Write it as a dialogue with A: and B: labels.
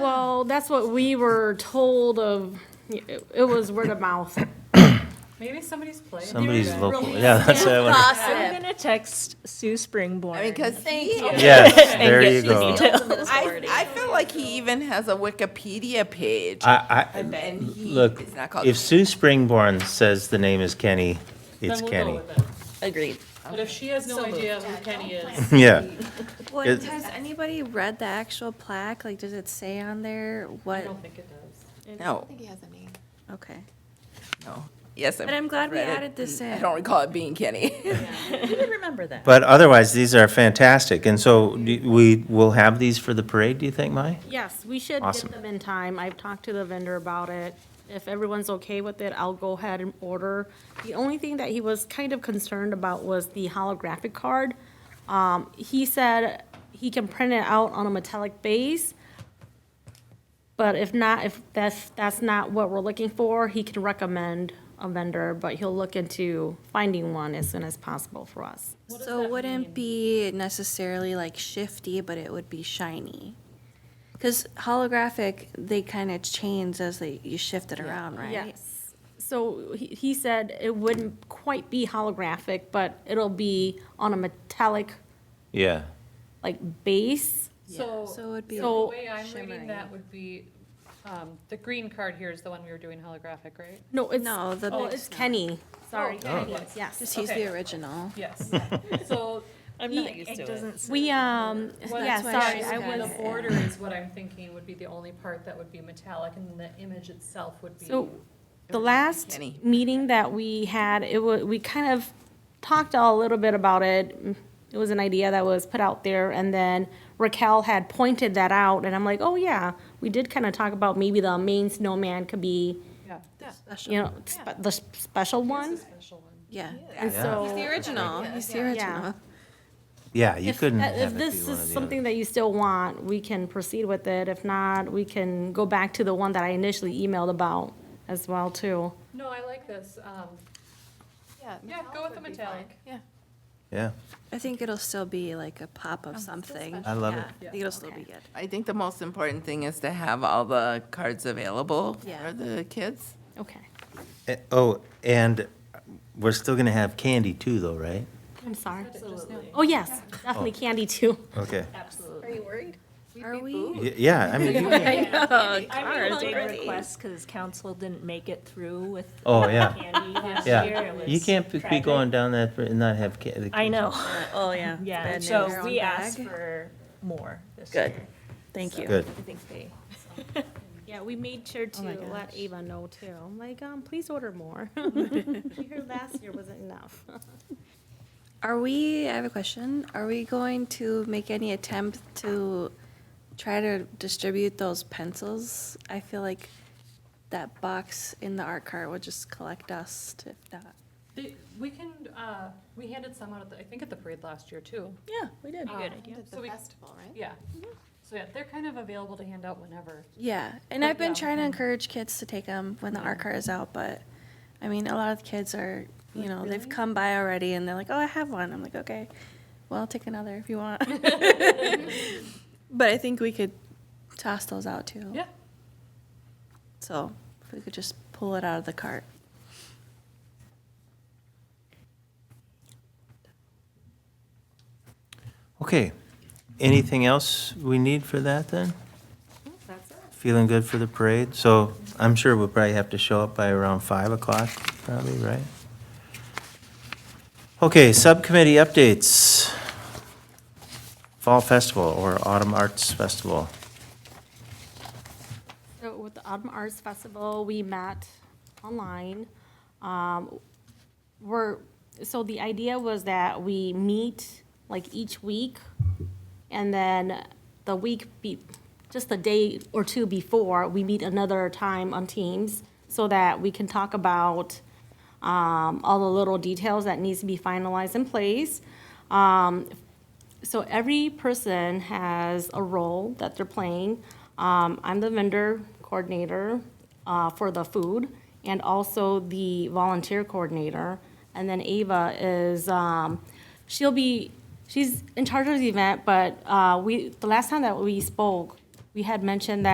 A: well, that's what we were told of, it it was word of mouth.
B: Maybe somebody's playing.
C: Somebody's local, yeah, that's what I wanna-
D: Gossip.
E: I'm gonna text Sue Springborn.
D: I mean, because he,
C: Yes,
E: and
C: there
E: get
C: you
E: the
C: go.
E: details.
D: I, I feel like he even has a Wikipedia page.
C: I, I,
D: And then he
C: look,
D: is not called.
C: if Sue Springborn says the name is Kenny, it's
B: Then we'll go
C: Kenny.
B: with it.
E: Agreed.
B: But if she has no idea who Kenny is,
C: Yeah,
F: Well,
C: It-
F: has anybody read the actual plaque? Like, does it say on there
B: I
F: what?
B: don't think it does.
D: No,
G: think he has a name.
F: Okay.
D: no. Yes.
F: But I'm glad we
D: read it.
F: added this
D: I
F: in.
D: don't recall it being Kenny.
E: You would remember that.
C: but otherwise, these are fantastic, and so do- we will have these for the parade, do you think, Mai?
A: Yes, we should
C: Awesome.
A: get them in time. I've talked to the vendor about it. If everyone's okay with it, I'll go ahead and order. The only thing that he was kind of concerned about was the holographic card. Um, he said he can print it out on a metallic base. But if not, if that's, that's not what we're looking for, he can recommend a vendor, but he'll look into finding one as soon as possible for us.
F: So it wouldn't be necessarily like shifty, but it would be shiny. Because holographic, they kind of change as they you shift it around, right?
A: Yes. So he, he said it wouldn't quite be holographic, but it'll be on a metallic,
C: Yeah,
A: like, base.
B: So
F: So it would be.
B: the
A: So-
B: way I'm reading
F: shimmery.
B: that would be, um, the green card here is the one we were doing holographic, right?
A: No, it's,
F: No, the
A: oh,
F: next
A: it's Kenny. Sorry,
B: Kenny.
A: Kenny, yes.
F: Just use
B: Okay.
F: the original.
B: Yes. So
E: I'm
A: He-
E: not used to it.
A: We, um, yeah,
F: why
A: sorry,
F: she's
A: I
F: got
A: was,
B: The border is what I'm thinking would be the only part that would be metallic and the image itself would be.
A: so, the last
D: Kenny.
A: meeting that we had, it wa, we kind of talked a little bit about it. It was an idea that was put out there, and then Raquel had pointed that out, and I'm like, oh, yeah, we did kind of talk about maybe the main snowman could be
B: Yeah.
A: you know, spe- the s- special one.
B: Special one.
F: Yeah.
A: And
C: Yeah.
A: so,
F: The original. He's the original.
C: yeah, you
A: if,
C: couldn't
A: uh,
C: Mm, have
A: if
C: it be
A: this
C: one
A: is
C: or the
A: something
C: other.
A: that you still want, we can proceed with it. If not, we can go back to the one that I initially emailed about as well, too.
B: No, I like this. Um,
G: Yeah.
B: Yeah, go with the
G: would be fine.
B: metallic.
G: Yeah.
C: Yeah,
F: I think it'll still be like a pop of something.
C: I love it.
F: I think it'll still be good.
D: I think the most important thing is to have all the cards available
F: Yeah.
D: for the kids.
A: Okay.
C: Eh, Oh, and we're still gonna have candy too, though, right?
A: I'm sorry. Oh, yes, definitely candy, too.
C: Okay,
F: Are we?
C: Y- yeah, I mean, you can't-
E: I'm big request because council didn't make it through with
C: oh, yeah,
E: candy last year.
C: yeah.
E: It
C: You
E: was
C: can't be- be
E: tragic.
C: going down that and not have candy.
E: I know,
H: Oh, yeah.
E: yeah,
H: Bad news.
E: so
F: Their
E: we
F: own
E: asked
F: bag.
E: for more this year.
H: Good. Thank you.
C: Good.
E: I think they,
A: Yeah, we made sure to let Ava know, too. I'm like, um, please order more. Here last year wasn't enough.
F: Are we, I have a question. Are we going to make any attempt to try to distribute those pencils? I feel like that box in the art cart will just collect dust if not.
B: They- We can, uh, we handed some out, at the- I think at the parade last year too.
E: yeah, we did.
B: Good
G: Oh, Did
B: So
G: the
B: we-
G: festival, right?
B: Yeah. So yeah, they're kind of available to hand out whenever.
F: Yeah, and I've been trying to encourage kids to take them when the art cart is out, but I mean, a lot of kids are, you know, they've come by already and they're like, oh, I have one. I'm like, okay, well, take another if you want. but I think we could toss those out too.
B: Yeah.
F: So if we could just pull it out of the cart.
C: Okay, anything else we need for that then? Feeling good for the parade? So I'm sure we'll probably have to show up by around five o'clock, probably, right? Okay, subcommittee updates. Fall Festival or Autumn Arts Festival.
A: So with the Autumn Arts Festival, we met online. Um, We're, so the idea was that we meet like each week, and then the week be, just a day or two before, we meet another time on Teams so that we can talk about um, all the little details that needs to be finalized in place. Um, so every person has a role that they're playing. Um, I'm the vendor coordinator uh, for the food and also the volunteer coordinator. And then Ava is, um, she'll be, she's in charge of the event, but uh, we, the last time that we spoke, we had mentioned that.